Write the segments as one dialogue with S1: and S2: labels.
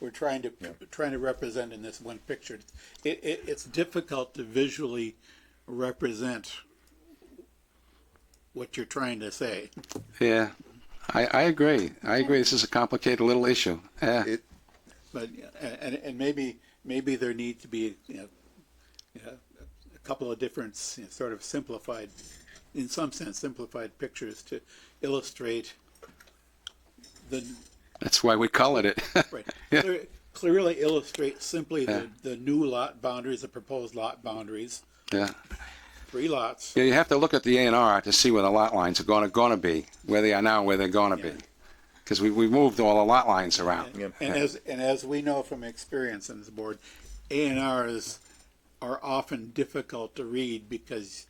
S1: we're trying to trying to represent in this one picture. It, it, it's difficult to visually represent what you're trying to say.
S2: Yeah, I, I agree. I agree. This is a complicated little issue. Yeah.
S3: It-
S1: But and and maybe maybe there need to be you know, you know, a couple of different you know, sort of simplified, in some sense, simplified pictures to illustrate the
S2: That's why we call it it.
S1: right
S2: Yeah.
S1: clear- clearly illustrate simply the, the new lot boundaries, the proposed lot boundaries,
S2: yeah.
S1: three lots.
S2: Yeah, you have to look at the A and R to see where the lot lines are gonna, gonna be, where they are now, where they're gonna be. Because we, we moved all the lot lines around.
S3: Yep.
S1: And as, and as we know from experience on this board, A and Rs are often difficult to read because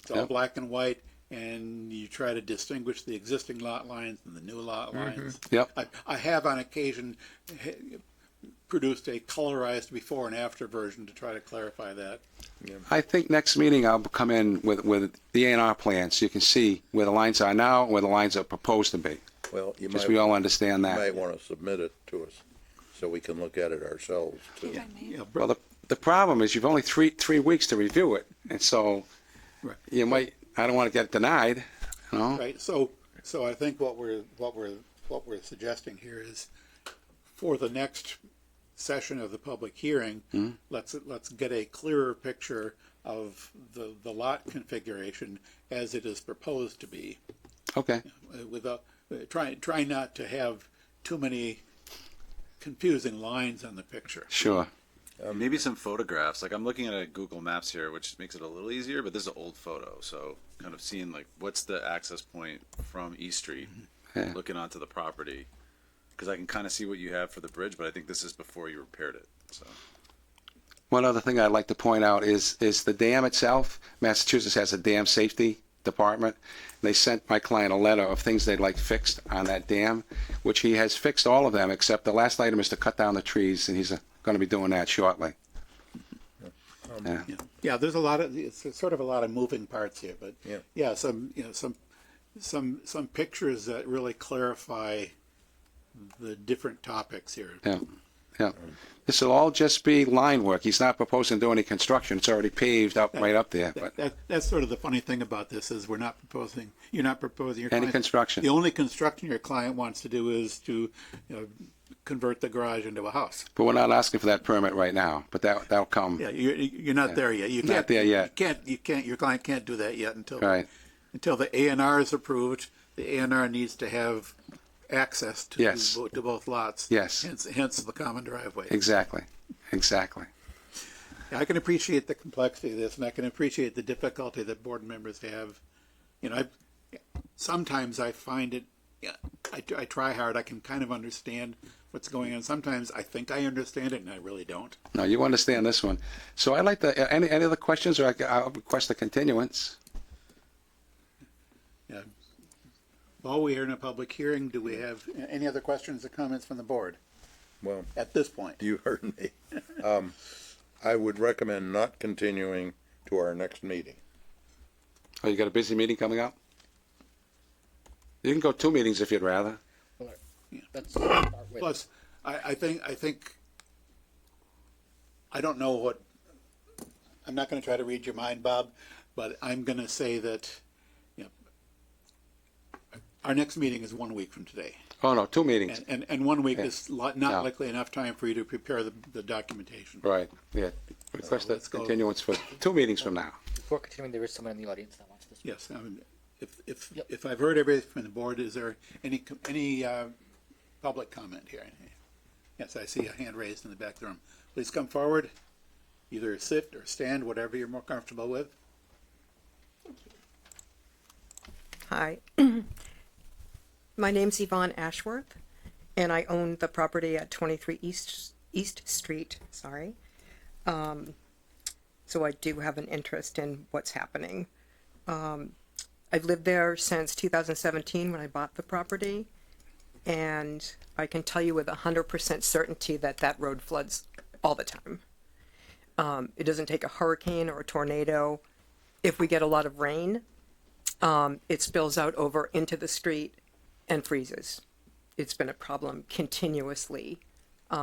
S1: it's all
S2: Yep.
S1: black and white and you try to distinguish the existing lot lines and the new lot lines.
S2: Mm-hmm. Yep.
S1: I, I have on occasion eh, produced a colorized before and after version to try to clarify that.
S2: I think next meeting I'll come in with, with the A and R plan, so you can see where the lines are now, where the lines are proposed to be.
S3: Well, you might,
S2: Just we all understand
S3: you
S2: that.
S3: might want to submit it to us so we can look at it ourselves too.
S1: You know,
S2: Well, the, the problem is you've only three, three weeks to review it, and so
S1: Right.
S2: you might, I don't wanna get denied, you know?
S1: Right, so, so I think what we're, what we're, what we're suggesting here is for the next session of the public hearing, let's, let's get a clearer picture of the, the lot configuration as it is proposed to be.
S2: Okay,
S1: uh, Without, uh, try, try not to have too many confusing lines on the picture.
S2: sure.
S4: Maybe some photographs. Like I'm looking at a Google Maps here, which makes it a little easier. But this is an old photo, so kind of seeing like what's the access point from East Street,
S2: Yeah.
S4: looking onto the property, because I can kind of see what you have for the bridge. But I think this is before you repaired it. So
S2: One other thing I'd like to point out is, is the dam itself, Massachusetts has a dam safety department. They sent my client a letter of things they'd like fixed on that dam, which he has fixed all of them, except the last item is to cut down the trees, and he's going to be doing that shortly. Yeah.
S1: Yeah, there's a lot of, it's sort of a lot of moving parts here, but
S3: Yeah.
S1: yeah, some, you know, some, some, some pictures that really clarify the different topics here.
S2: Yeah, yeah. This will all just be line work. He's not proposing to do any construction. It's already paved up, right up there,
S1: That,
S2: but
S1: that, that's sort of the funny thing about this is we're not proposing, you're not proposing your
S2: Any
S1: client-
S2: construction.
S1: The only construction your client wants to do is to, you know, convert the garage into a house.
S2: but we're not asking for that permit right now, but that, that'll come.
S1: Yeah, you're, you're not there yet. You
S2: Not
S1: can't-
S2: there yet.
S1: You can't, you can't, your client can't do that yet until.
S2: Right.
S1: Until the A and R is approved, the A and R needs to have access to.
S2: Yes.
S1: bo- To both lots.
S2: Yes.
S1: Hence, hence the common driveway.
S2: Exactly, exactly.
S1: I can appreciate the complexity of this and I can appreciate the difficulty that board members have. You know, I, sometimes I find it, yeah, I, I try hard, I can kind of understand what's going on. Sometimes I think I understand it and I really don't.
S2: No, you understand this one. So I'd like to, uh, any, any other questions or I c- I'll request a continuance?
S1: Yeah. While we are in a public hearing, do we have any other questions or comments from the board
S3: Well,
S1: at this point?
S3: you heard me. Um, I would recommend not continuing to our next meeting.
S2: Oh, you got a busy meeting coming up? You can go two meetings if you'd rather.
S5: Let's start with
S1: Plus, I, I think, I think, I don't know what, I'm not gonna try to read your mind, Bob, but I'm gonna say that, you know, our next meeting is one week from today.
S2: Oh, no, two meetings.
S1: And, and, and one week is li-
S2: No.
S1: not likely enough time for you to prepare the, the documentation.
S2: Right, yeah. Request a
S1: let's go.
S2: continuance for two meetings from now.
S5: before continuing. There is someone in the audience that wants to speak.
S1: Yes, I mean, if, if,
S5: Yep.
S1: if I've heard everything from the board, is there any, com- any, uh, public comment here? Yes, I see a hand raised in the back of the room. Please come forward, either sit or stand, whatever you're more comfortable with.
S6: Hi. My name's Yvonne Ashworth, and I own the property at 23 East, East Street, sorry. Um, So I do have an interest in what's happening. Um, I've lived there since 2017 when I bought the property, and I can tell you with 100% certainty that that road floods all the time. Um, It doesn't take a hurricane or a tornado. If we get a lot of rain, it spills out over into the street and freezes. It's been a problem continuously